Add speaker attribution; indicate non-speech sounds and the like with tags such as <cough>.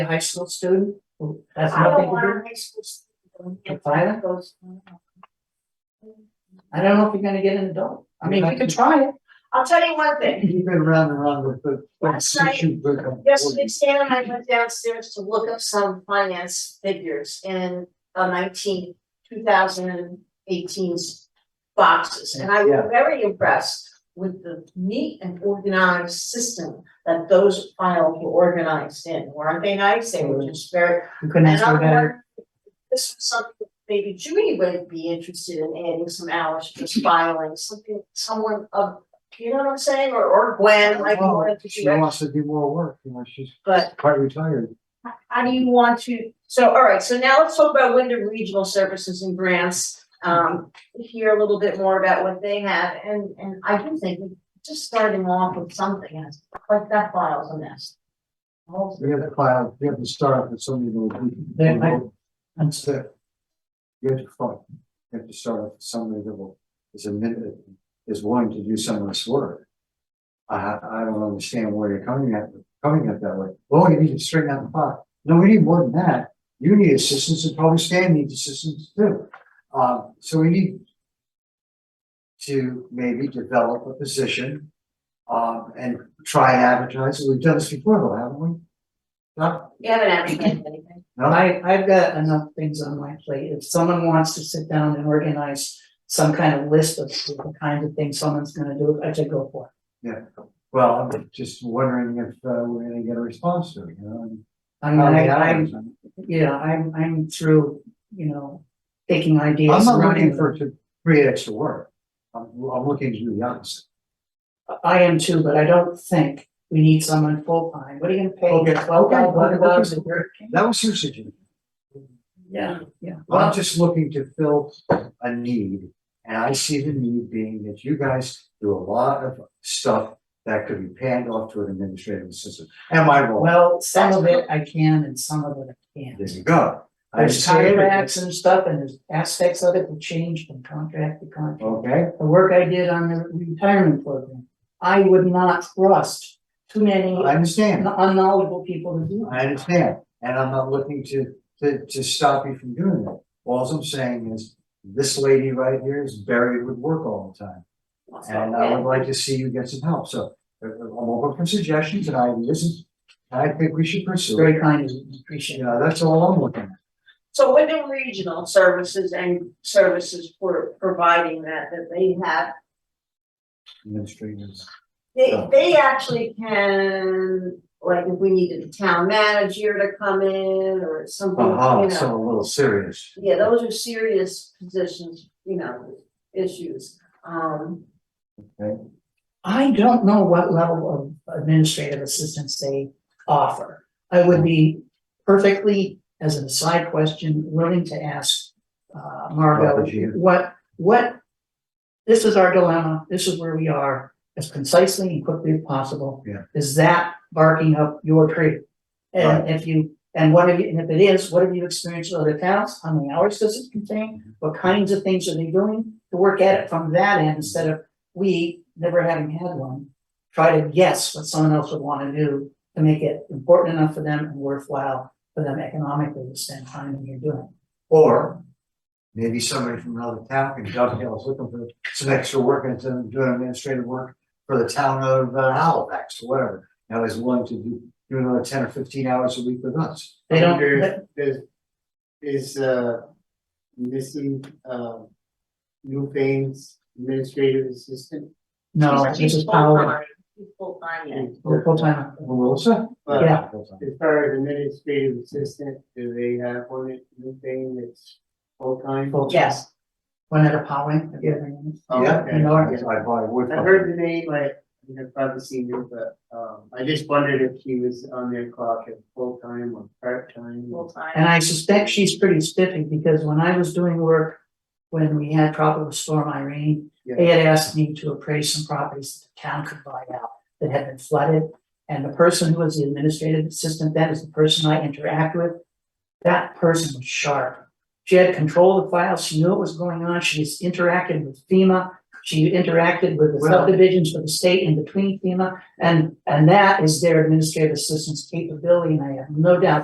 Speaker 1: a high school student who has
Speaker 2: I don't
Speaker 1: nothing to
Speaker 2: want
Speaker 1: do?
Speaker 2: a high school student.
Speaker 1: The pilot
Speaker 2: goes.
Speaker 1: I don't know if you're gonna get an adult. I mean, we could try it.
Speaker 2: I'll tell you one thing,
Speaker 3: You've been round and round with the.
Speaker 2: Last night, yesterday Stan and I went downstairs to look up some finance figures in a nineteen, two thousand and eighteen's boxes, and I was
Speaker 3: Yeah.
Speaker 2: very impressed with the neat and organized system that those files were organized in, weren't they nice? They
Speaker 1: Mm-hmm.
Speaker 2: were just very,
Speaker 1: You couldn't
Speaker 2: And
Speaker 1: ask for
Speaker 2: I'm
Speaker 1: better.
Speaker 2: wondering if This was something that maybe Judy would be interested in adding some hours,
Speaker 3: <laughs>
Speaker 2: just filing something, someone of, you know what I'm saying, or or Gwen, like
Speaker 3: Well,
Speaker 2: wanted to
Speaker 3: She
Speaker 2: do it,
Speaker 3: wants to do more work, you know, she's
Speaker 2: but
Speaker 3: quite retired.
Speaker 2: h- how do you want to, so, all right, so now let's talk about Wyndham Regional Services and Grants. Um, hear a little bit more about what they have, and and I do think just starting off with something, and it's like that file's a mess. Oh,
Speaker 3: We have to file, we have to start with somebody who.
Speaker 1: Yeah, I-
Speaker 3: That's it. You have to file, you have to start with somebody that will, is admitted, is willing to do some of this work. I, I don't understand where you're coming at, coming at that way. Oh, you need to straighten out the file. No, we need more than that. You need assistance and probably Stan needs assistance too. Uh, so we need to maybe develop a position, um, and try and advertise it. We've done this before though, haven't we? No?
Speaker 2: You haven't advertised anything,
Speaker 3: No?
Speaker 1: I, I've got enough things on my plate. If someone wants to sit down and organize some kind of list of the kind of things someone's gonna do, I should go for it.
Speaker 3: Yeah. Well, I'm just wondering if, uh, we're gonna get a response to it, you know? and
Speaker 1: I
Speaker 3: how
Speaker 1: mean,
Speaker 3: many
Speaker 1: I,
Speaker 3: hours
Speaker 1: I'm,
Speaker 3: and-
Speaker 1: yeah, I'm, I'm through, you know, taking ideas.
Speaker 3: I'm not looking
Speaker 1: running
Speaker 3: for to create extra work. I'm, I'm looking to do the opposite.
Speaker 1: I am too, but I don't think we need someone full time. What are you gonna pay?
Speaker 3: Okay, okay,
Speaker 1: Twelve dollars,
Speaker 3: okay, okay.
Speaker 1: dollars a year?
Speaker 3: That was your suggestion.
Speaker 1: Yeah, yeah.
Speaker 3: I'm just looking to fill a need, and I see the need being that you guys do a lot of stuff that could be panned off to an administrative assistant. Am I wrong?
Speaker 1: Well, some of it I can and some of it I
Speaker 3: There
Speaker 1: can't.
Speaker 3: you go. I
Speaker 1: There's
Speaker 3: see it.
Speaker 1: contracts and stuff and there's aspects of it that change from contract to contract.
Speaker 3: Okay,
Speaker 1: The work I did on the retirement program, I would not trust too many
Speaker 3: I understand.
Speaker 1: unknowledgeable people to do. it.
Speaker 3: I understand, and I'm not looking to, to, to stop you from doing that. All I'm saying is, this lady right here is buried with work all the time. And uh, I would like to see you get some help, so uh, I'm open for suggestions and ideas, and I think we should
Speaker 1: It's
Speaker 3: pursue it.
Speaker 1: very kind of you, appreciate
Speaker 3: You
Speaker 1: it.
Speaker 3: know, that's all I'm looking at.
Speaker 2: So Wyndham Regional Services and Services for providing that, that they have,
Speaker 3: Administrators.
Speaker 2: they,
Speaker 3: Yeah.
Speaker 2: they actually can, like, if we needed a town manager to come in or something, you
Speaker 3: Uh-huh,
Speaker 2: know.
Speaker 3: so a little serious.
Speaker 2: Yeah, those are serious positions, you know, issues, um,
Speaker 1: I don't know what level of administrative assistance they offer. I would be perfectly, as an aside question, willing to ask uh Margot,
Speaker 3: Margot, you.
Speaker 1: what, what? This is our dilemma, this is where we are, as concisely and quickly as possible.
Speaker 3: Yeah.
Speaker 1: Is that barking up your tree? And if you, and what have you, and if it is, what have you experienced with other towns? How many hours does it contain? What kinds of things are they doing to work at it from that end instead of we, never having had one, try to guess what someone else would wanna do to make it important enough for them and worthwhile for them economically to spend time in here doing.
Speaker 3: Or maybe somebody from another town can dovetail, is looking for some extra work and some doing administrative work for the town of uh, Halifax, or whatever. Now is willing to do, do another ten or fifteen hours a week with us.
Speaker 1: They don't,
Speaker 4: wonder if
Speaker 1: they-
Speaker 4: there's- Is uh missing uh new pains administrative assistant?
Speaker 1: no,
Speaker 2: she's-
Speaker 1: this
Speaker 2: she's
Speaker 1: is Paola,
Speaker 2: full-time, she's full-time, yeah.
Speaker 1: we're full time.
Speaker 3: Melissa?
Speaker 4: But
Speaker 1: Yeah.
Speaker 4: As far as administrative assistant, do they have one that- new thing that's full time?
Speaker 1: full-time.
Speaker 2: Yes.
Speaker 1: Juanetta Powling, have you ever heard of her?
Speaker 3: Yeah,
Speaker 1: You know her?
Speaker 3: I probably would.
Speaker 4: I heard the name, I I have probably seen her, but um I just wondered if she was on their clock as full time or part time.
Speaker 1: And
Speaker 2: Full-time,
Speaker 1: I suspect she's pretty spiffy because when I was doing work, when we had tropical storm Irene, they had asked me to appraise some properties that the town could buy out that had been flooded. And the person who was the administrative assistant, that is the person I interact with, that person was sharp. She had control of the files, she knew what was going on, she was interacted with FEMA, she interacted with the
Speaker 3: Well-
Speaker 1: subdivisions for the state and between FEMA. And, and that is their administrative assistant's capability, and I have no doubt